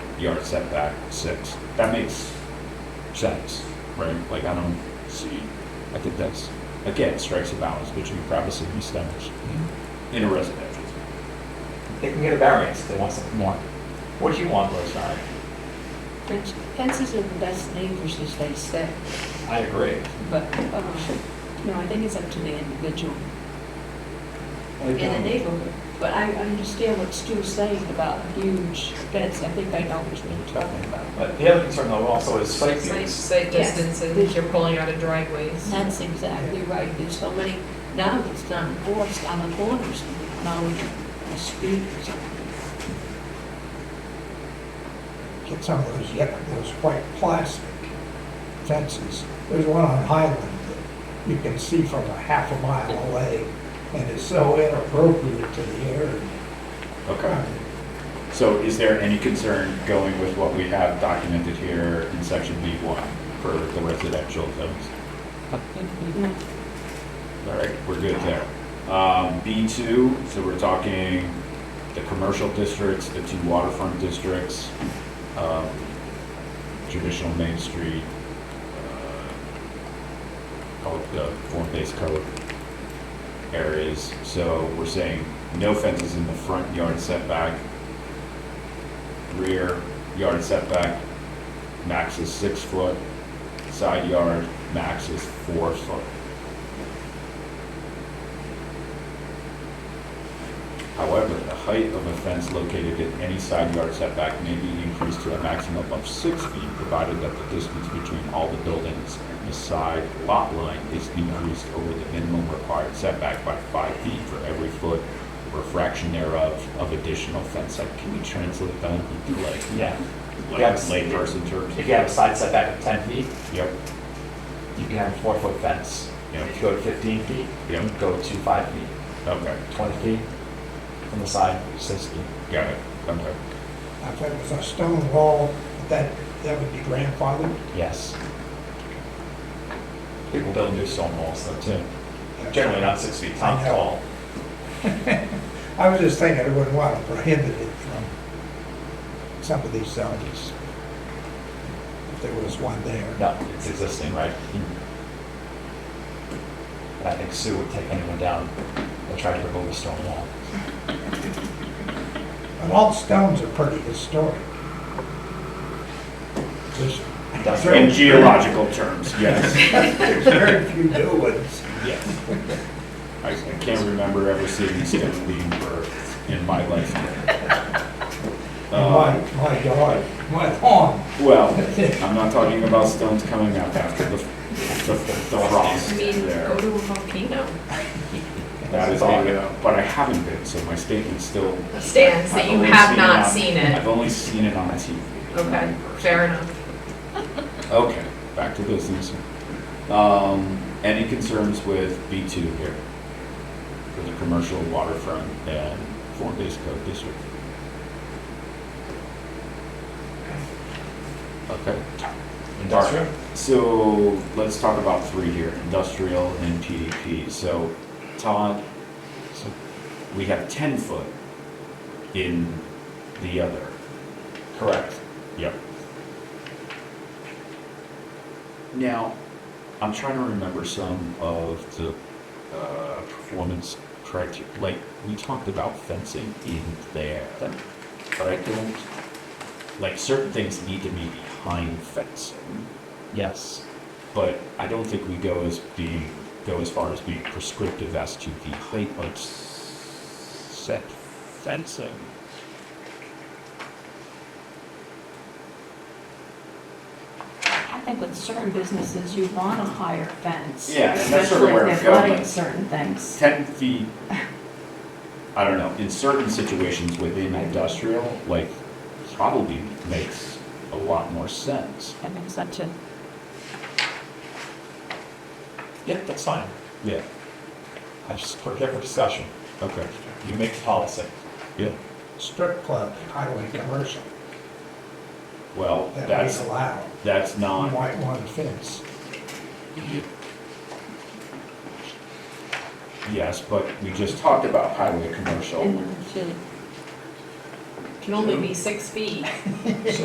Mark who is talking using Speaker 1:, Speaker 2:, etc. Speaker 1: yard setback six. That makes sense, right? Like, I don't see, I think that's, again, strikes a balance between privacy and standards in a residential.
Speaker 2: Mm-hmm. They can get a variance if they want something more. What do you want, Rosemary?
Speaker 3: Fence- Fences are the best neighbors, as they say,
Speaker 2: I agree.
Speaker 3: but, um, you know, I think it's up to the individual in the neighborhood. But I understand what Stu's saying about huge fence, I think I know what you're talking about.
Speaker 2: But the other concern though also is site
Speaker 4: Site,
Speaker 2: views.
Speaker 4: site
Speaker 3: Yes.
Speaker 4: distance, if you're pulling out of driveways.
Speaker 3: That's exactly right, there's so many, now it's not enforced on the corners, now we can speak or something.
Speaker 5: get some of those, yep, those white plastic fences. There's one on Highland that you can see from a half a mile away, and it's so inappropriate to the area.
Speaker 1: Okay. So is there any concern going with what we have documented here in section B1 for the residential zones? All right, we're good there. Um, B2, so we're talking the commercial districts, the two waterfront districts, um, traditional Main Street, uh, all of the form-based code areas. So we're saying no fences in the front yard setback, rear yard setback, max is six foot, side yard, max is four foot. However, the height of a fence located at any side yard setback may be increased to a maximum of six feet, provided that the distance between all the buildings and the side lot line is increased over the minimum required setback by five feet for every foot or fraction thereof of additional fence height. Can we translate that into like,
Speaker 2: Yeah.
Speaker 1: like
Speaker 2: Yes.
Speaker 1: layperson terms?
Speaker 2: If you have a side setback of ten feet,
Speaker 1: Yep,
Speaker 2: you can have a four foot fence.
Speaker 1: Yeah.
Speaker 2: If you go to fifteen feet,
Speaker 1: Yeah.
Speaker 2: you go to five feet,
Speaker 1: okay,
Speaker 2: twenty feet from the side, six feet.
Speaker 1: got it, okay.
Speaker 5: Now, If it was a stone wall, that, that would be grandfathered.
Speaker 2: Yes. People build new stone walls though too. Generally not six feet
Speaker 5: I know.
Speaker 2: tall.
Speaker 5: I was just thinking, I wouldn't want to prohibit it from some of these zones. If there was one there.
Speaker 2: No, it's existing, right? And I think Sue would take anyone down that tried to remove a stone wall.
Speaker 5: But all stones are pretty historic. There's
Speaker 2: That's
Speaker 5: very-
Speaker 1: In geological terms, yes,
Speaker 5: There's very few new ones.
Speaker 1: yes. I I can't remember ever seeing stone being birthed in my life.
Speaker 5: My,
Speaker 1: Um,
Speaker 5: my yard, my lawn.
Speaker 1: Well, I'm not talking about stones coming up after the, the the frost
Speaker 4: I mean, go
Speaker 1: there.
Speaker 4: to a volcano.
Speaker 1: That is all, but I haven't been, so my statement's still.
Speaker 4: Stands
Speaker 1: I've
Speaker 4: that you
Speaker 1: only
Speaker 4: have
Speaker 1: on-
Speaker 4: not seen
Speaker 1: I've
Speaker 4: it.
Speaker 1: only seen it on TV. It's not
Speaker 4: Okay,
Speaker 1: in person.
Speaker 4: fair enough.
Speaker 1: Okay, back to business. Um, any concerns with B two here? For the commercial waterfront and form-based code district? Okay,
Speaker 2: Industrial?
Speaker 1: so let's talk about three here, industrial and PDP. So Todd, so we have ten foot in the other.
Speaker 2: Correct.
Speaker 1: Yep. Now, I'm trying to remember some of the uh, performance criteria. Like, we talked about fencing in there, but I don't, like, certain things need to be behind fencing,
Speaker 2: Yes.
Speaker 1: but I don't think we go as being, go as far as being prescriptive as to the height of s- set fencing.
Speaker 3: I think with certain businesses, you want a higher fence.
Speaker 1: Yeah, and that's sort of where I'm
Speaker 3: Especially if they're
Speaker 1: going.
Speaker 3: running certain things.
Speaker 1: 10 feet, I don't know, in certain situations within industrial, like, probably makes a lot more sense.
Speaker 3: I think such a,
Speaker 2: Yep, that's fine.
Speaker 1: Yeah,
Speaker 2: I just put it there for discussion.
Speaker 1: okay,
Speaker 2: You make the policy.
Speaker 1: yeah.
Speaker 5: Strip club, highway commercial,
Speaker 1: Well,
Speaker 5: that is
Speaker 1: that's,
Speaker 5: allowed.
Speaker 1: that's
Speaker 5: You
Speaker 1: not,
Speaker 5: might want a fence.
Speaker 1: yes, but we just talked about highway commercial.
Speaker 3: and should-
Speaker 4: Can only be six feet.